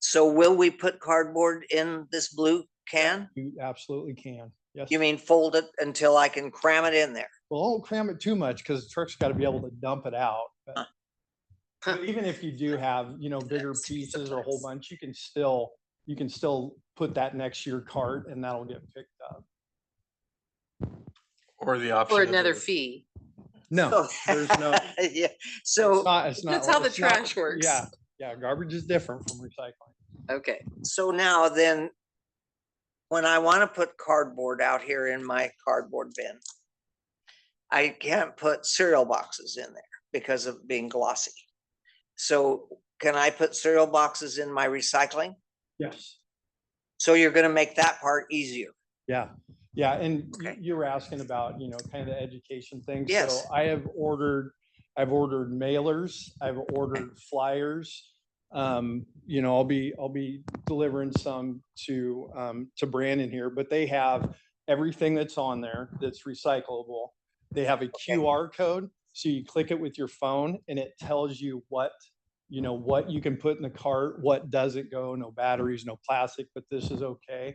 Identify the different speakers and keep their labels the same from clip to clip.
Speaker 1: So will we put cardboard in this blue can?
Speaker 2: You absolutely can. Yes.
Speaker 1: You mean fold it until I can cram it in there?
Speaker 2: Well, don't cram it too much because the truck's got to be able to dump it out. but-
Speaker 1: Huh.
Speaker 2: but Even if you do have, you know, bigger
Speaker 1: That's
Speaker 2: pieces or a whole
Speaker 1: sometimes.
Speaker 2: bunch, you can still, you can still put that next to your cart and that'll get picked up.
Speaker 3: Or the option.
Speaker 4: Or
Speaker 3: of
Speaker 4: another
Speaker 3: the-
Speaker 4: fee.
Speaker 2: No. There's no. it's
Speaker 1: Oh, Yeah, so,
Speaker 2: not- it's not
Speaker 4: That's
Speaker 2: like-
Speaker 4: how the
Speaker 2: it's not-
Speaker 4: trash works.
Speaker 2: Yeah, yeah, garbage is different from recycling.
Speaker 4: Okay,
Speaker 1: so now then, when I want to put cardboard out here in my cardboard bin, I can't put cereal boxes in there because of being glossy. So can I put cereal boxes in my recycling?
Speaker 2: Yes.
Speaker 1: So you're going to make that part easier.
Speaker 2: Yeah, yeah, and you-
Speaker 1: Okay.
Speaker 2: you were asking about, you know, kind of the education thing. So
Speaker 1: Yes.
Speaker 2: I have ordered, I've ordered mailers, I've ordered flyers. Um, you know, I'll be, I'll be delivering some to, um, to Brandon here, but they have everything that's on there that's recyclable. They have a QR code, so you click it with your phone and it tells you what, you know, what you can put in the cart, what doesn't go, no batteries, no plastic, but this is okay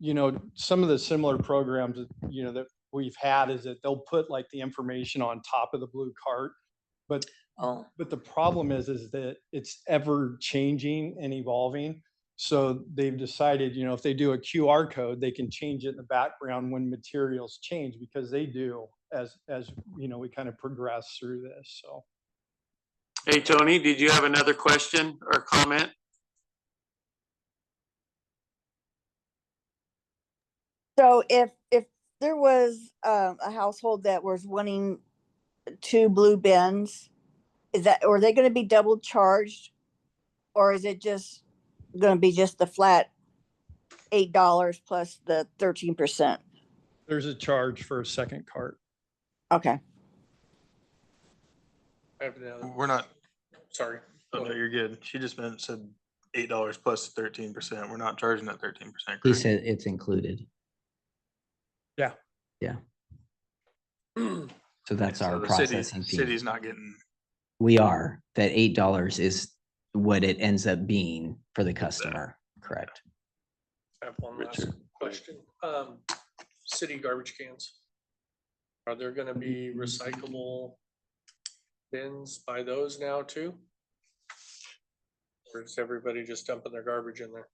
Speaker 2: you know, some of the similar programs, that, you know, that we've had is that they'll put like the information on top of the blue cart.
Speaker 1: Oh,
Speaker 2: But the problem is, is that it's ever changing and evolving. So they've decided, you know, if they do a QR code, they can change it in the background when materials change because they do as, as, you know, we kind of progress through this. So.
Speaker 3: Hey, Tony, did you have another question or comment?
Speaker 5: So if, if there was um, a household that was wanting two blue bins, is that, are they gonna be double charged? Or is it just gonna be just the flat eight dollars plus the thirteen percent?
Speaker 2: There's a charge for a second cart.
Speaker 5: Okay,
Speaker 3: We're not,
Speaker 6: Sorry.
Speaker 3: oh, no, you're good. She just meant, said eight dollars plus thirteen percent. We're not charging that thirteen percent.
Speaker 7: He said it's included.
Speaker 2: Yeah.
Speaker 7: Yeah. So that's our processing fee.
Speaker 3: City's not getting,
Speaker 7: We are, that eight dollars is what it ends up being for the customer, correct?
Speaker 6: I have one last
Speaker 3: Richard,
Speaker 6: question. Um, city garbage cans. Are there gonna be recyclable bins by those now too? Or is everybody just dumping their garbage in there?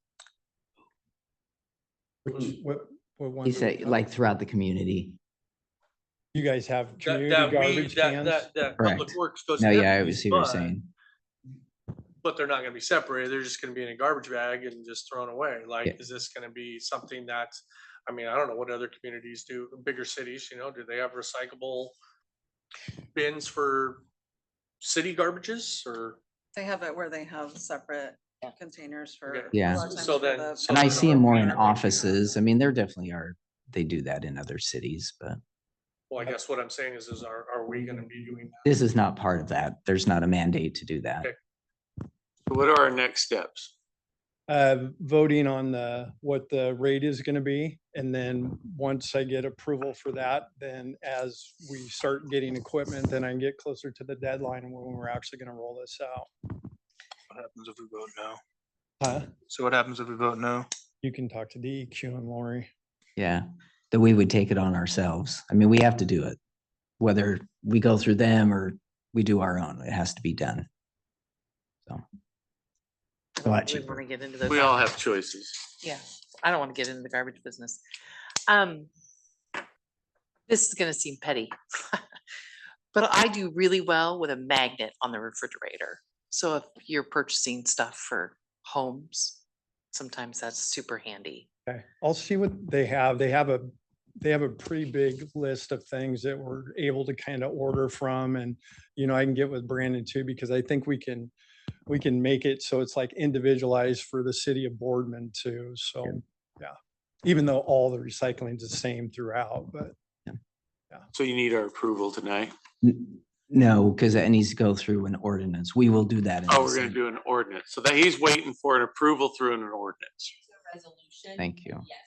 Speaker 2: Which, what, what one?
Speaker 7: He
Speaker 2: do we
Speaker 7: said,
Speaker 2: have?
Speaker 7: like throughout the community.
Speaker 2: You guys have
Speaker 6: That,
Speaker 2: community
Speaker 6: that, we-
Speaker 2: garbage
Speaker 6: that,
Speaker 2: cans?
Speaker 6: that, that public
Speaker 7: Correct.
Speaker 6: works goes. to
Speaker 7: No, yeah, I
Speaker 6: everybody's,
Speaker 7: see what you're
Speaker 6: but-
Speaker 7: saying.
Speaker 6: But they're not gonna be separated. They're just gonna be in a garbage bag and just thrown away.
Speaker 7: Yeah.
Speaker 6: Like, is this gonna be something that, I mean, I don't know what other communities do, bigger cities, you know, do they have recyclable bins for city garbages or?
Speaker 8: They have it where they have separate containers for.
Speaker 6: Okay.
Speaker 8: a
Speaker 7: Yeah.
Speaker 8: lot of times
Speaker 6: So
Speaker 8: for
Speaker 6: then-
Speaker 8: the-
Speaker 6: so
Speaker 7: And I
Speaker 6: then
Speaker 7: see
Speaker 6: our
Speaker 7: them more in
Speaker 6: parent-
Speaker 7: offices. I mean, there definitely are, they do that in other cities, but
Speaker 6: Well, I guess what I'm saying is, is are, are we gonna be doing that?
Speaker 7: this is not part of that. There's not a mandate to do that.
Speaker 3: what are our next steps?
Speaker 2: uh, voting on the, what the rate is going to be. And then once I get approval for that, then as we start getting equipment, then I can get closer to the deadline and when we're actually going to roll this out.
Speaker 3: What happens if we vote no?
Speaker 2: Huh?
Speaker 3: So what happens if we vote no?
Speaker 2: You can talk to DEQ and Lori.
Speaker 7: Yeah, that we would take it on ourselves. I mean, we have to do it. Whether we go through them or we do our own, it has to be done. So. It's a lot
Speaker 4: We
Speaker 7: cheaper.
Speaker 4: want to get into those.
Speaker 3: We all have choices.
Speaker 4: Yeah, I don't want to get into the garbage business. Um, this is gonna seem petty. But I do really well with a magnet on the refrigerator. So if you're purchasing stuff for homes, sometimes that's super handy.
Speaker 2: Okay, I'll see what they have. They have a, they have a pretty big list of things that we're able to kind of order from and, you know, I can get with Brandon too, because I think we can, we can make it so it's like individualized for the city of Boardman too, so, yeah. Even though all the recycling's the same throughout, but
Speaker 3: So you need our approval tonight.
Speaker 7: N- No, because that needs to go through an ordinance. We will do that. in
Speaker 3: Oh,
Speaker 7: this
Speaker 3: we're gonna
Speaker 7: thing.
Speaker 3: do an ordinance. So that he's waiting for an approval through an ordinance.
Speaker 9: resolution.
Speaker 7: Thank you.
Speaker 9: Yes,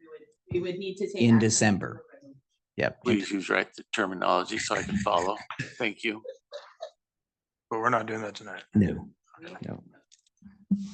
Speaker 9: we would, we would need to take.
Speaker 7: In
Speaker 9: action
Speaker 7: December.
Speaker 9: through a resolution.
Speaker 7: Yep.
Speaker 3: Please use right terminology so I can follow. Thank you.
Speaker 7: No, no.